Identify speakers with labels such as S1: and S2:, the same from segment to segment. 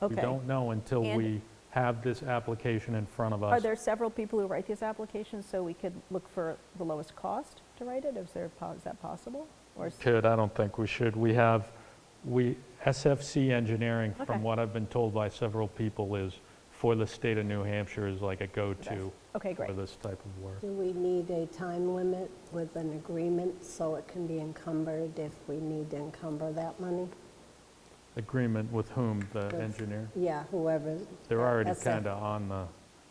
S1: We
S2: Okay.
S1: don't know until
S2: And-
S1: we have this application in front of us.
S2: Are there several people who write these applications, so we could look for the lowest cost to write it? Is there, po- is that possible? Or is-
S1: Could, I don't think we should. We have, we, SFC Engineering,
S2: Okay.
S1: from what I've been told by several people, is, for the state of New Hampshire, is like a go-to
S2: Okay, great.
S1: for this type of work.
S3: Do we need a time limit with an agreement so it can be encumbered if we need to encumber that money?
S1: Agreement with whom, the
S3: With-
S1: engineer?
S3: Yeah, whoever.
S1: They're already
S3: SF.
S1: kind of on the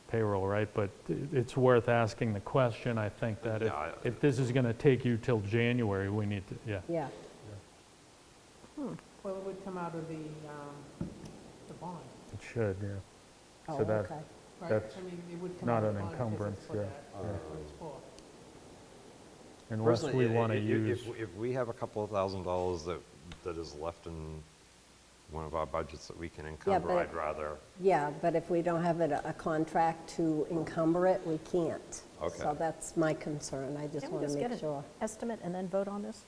S1: payroll, right? But i- it's worth asking the question, I think, that if,
S4: Yeah, I-
S1: if this is going to take you till January, we need to, yeah.
S3: Yeah,
S5: Well, it would come out of the, um, the bond,
S1: It should, yeah.
S3: oh,
S1: So that-
S3: okay.
S5: right?
S1: That's
S5: I mean, it would come
S1: not
S5: out of
S1: an
S5: the bond because
S1: encumbrance,
S5: it's for
S1: yeah,
S5: that- that's what it's for.
S1: Unless
S4: Personally,
S1: we
S4: i-
S1: want
S4: i-
S1: to
S4: i-
S1: use,
S4: If, if we have a couple of thousand dollars that, that is left in one of our budgets that we can encumber,
S3: but-
S4: I'd rather,
S3: Yeah, but if we don't have it, a contract to encumber it, we can't.
S4: Okay.
S3: So that's my concern, I just
S2: Can we
S3: want
S2: just
S3: to
S2: get
S3: make
S2: an
S3: sure.
S2: estimate and then vote on this?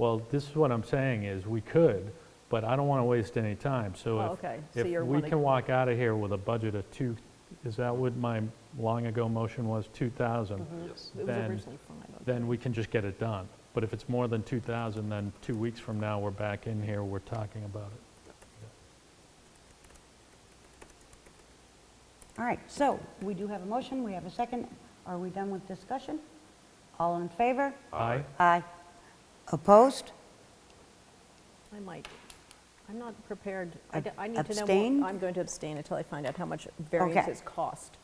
S1: well, this is what I'm saying is, we could, but I don't want to waste any time, so
S2: Oh,
S1: if.
S2: okay. So you're
S1: If we
S2: wanting-
S1: can walk out of here with a budget of two, is that what my long ago motion was, 2,000?
S4: yes.
S2: Mm-hmm. It was
S1: Then-
S2: originally five. okay.
S1: Then we can just get it done. But if it's more than 2,000, then two weeks from now, we're back in here, we're talking about it.
S6: All right, so we do have a motion, we have a second. Are we done with discussion? All in favor?
S1: Aye.
S6: Aye. Opposed?
S2: I might, I'm not prepared, I
S6: Ab-
S2: d- I need to know. more-
S6: abstain?
S2: I'm going to abstain until I find out how much variances cost.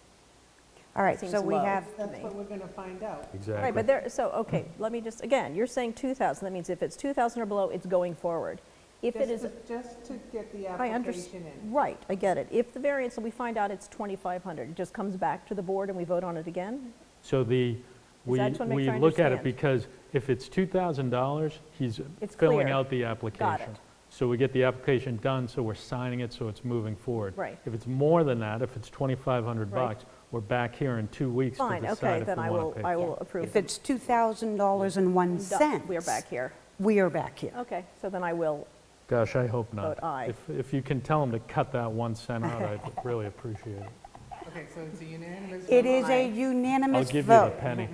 S6: All right,
S2: Seems
S6: so we
S2: low.
S6: have,
S5: That's what we're gonna find out.
S1: Exactly.
S2: Right, but there, so, okay, let me just, again, you're saying 2,000, that means if it's 2,000 or below, it's going forward. If it
S5: Just
S2: is,
S5: to- Just to get the
S2: I
S5: application
S2: understand,
S5: in.
S2: right, I get it. If the variance, we find out it's 2,500, it just comes back to the board and we vote on it again?
S1: So the, we,
S2: I just wanna make
S1: we
S2: sure I
S1: look at it
S2: understand.
S1: because if it's $2,000, he's
S2: It's
S1: filling
S2: clear.
S1: out the application. So we get the application done, so we're signing it, so it's moving forward.
S2: Right.
S1: If it's more than that, if it's 2,500
S2: Right.
S1: bucks, we're back here in two weeks to
S2: Fine, okay,
S1: decide if we
S2: then I
S1: want
S2: will,
S1: to pay.
S2: I will approve.
S6: if
S2: them.
S6: it's $2,000 and one
S2: Done.
S6: cent.
S2: We are back Oh, here.
S6: We are back here.
S2: Okay, so then I will,
S1: Gosh, I hope not.
S2: Vote aye.
S1: If, if you can tell them to cut that one cent out, I'd really appreciate it.
S5: Okay, so it's a unanimous.
S6: It
S5: vote.
S6: is a
S1: I'll
S6: unanimous
S1: give you the
S6: vote.
S1: penny.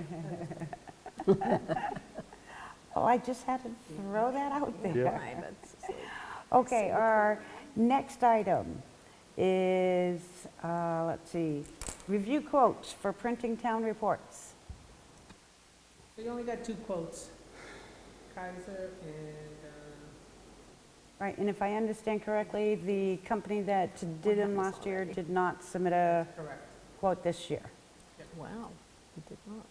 S6: Oh, I just had to throw that out
S1: Yeah.
S6: there.
S2: fine, that's silly.
S6: Okay, our next item is, uh, let's see, review quotes for printing town reports.
S5: We only got two quotes, Kaiser and, uh,
S6: Right, and if I understand correctly, the company that did them last year did not submit a
S5: correct.
S6: quote this year.
S2: wow, we did not.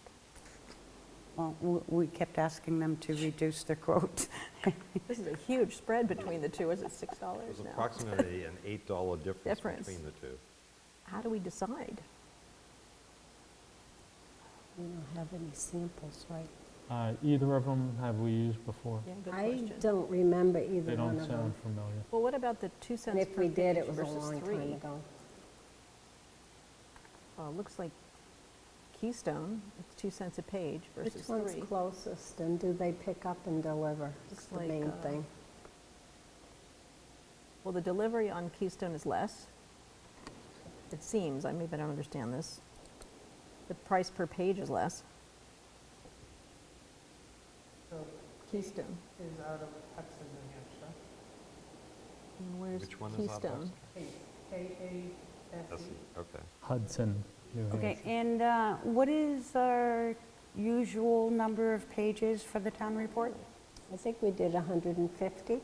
S6: Well, w- we kept asking them to reduce their quote.
S2: This is a huge spread between the two, is it $6
S4: There's
S2: now?
S4: approximately an $8 difference
S2: Difference.
S4: between the two.
S2: How do we decide?
S3: We don't have any samples, right?
S1: Uh, Either of them have we used before?
S2: Yeah, good
S3: I
S2: question.
S3: don't remember either
S1: They
S3: one
S1: don't
S3: of them.
S1: sound familiar.
S2: Well, what about the two
S3: And
S2: cents
S3: if
S2: per
S3: we did,
S2: page
S3: it was a
S2: versus
S3: long time
S2: three?
S3: ago.
S2: Uh, Looks like Keystone, it's two cents a page versus
S3: Which one's
S2: three.
S3: closest, and do they pick up and deliver? It's
S2: Looks
S3: the
S2: like,
S3: main
S2: uh,
S3: thing.
S2: Well, the delivery on Keystone is less, it seems, I maybe I don't understand this. The price per page is less.
S5: So
S2: Keystone.
S5: is out of Hudson, New Hampshire.
S2: And where's
S4: Which one is out
S2: Keystone?
S5: K-A-S-E.
S4: That's the- Okay.
S1: Hudson, New
S6: Okay,
S1: Hampshire.
S6: and uh, what is our usual number of pages for the town report?
S3: I think we did 150,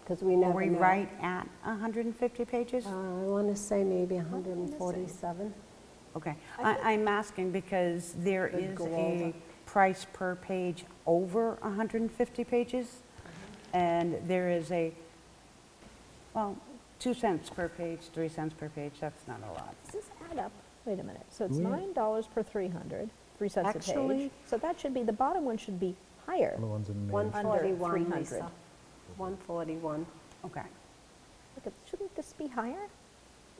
S3: because we
S6: Are
S3: never
S6: we
S3: know.
S6: right at 150 pages?
S3: Uh, I want to say maybe
S2: did I miss
S3: 147.
S6: Okay, I- I'm asking because there
S3: Could
S6: is
S3: go
S6: a
S3: over.
S6: price per page over 150 pages, and there is a, well, 2 cents per page, 3 cents per page, that's not a lot.
S2: Does this add up? Wait a minute, so it's
S1: Yeah.
S2: $9 per 300, 3 cents a page.
S3: Actually-
S2: So that should be, the bottom one should be higher.
S1: Other one's in Maine.
S3: 141,
S2: 300.
S3: Lisa. 141.
S6: Okay,
S2: Look, it- shouldn't this be higher?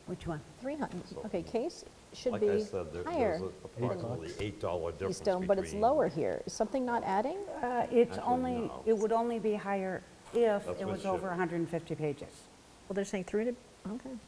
S6: which one?
S2: 300, okay, case should
S4: Like
S2: be
S4: I said, there-
S2: higher
S4: there's a- approximately $8 difference
S2: Keystone, but it's
S4: between-
S2: lower here. Is something not adding?
S6: Uh, It's
S4: Actually,
S6: only,
S4: no.
S6: it would only be higher if
S4: That's
S6: it
S4: what
S6: was
S4: should-
S6: over 150 pages.
S2: Well, they're saying 300 Okay.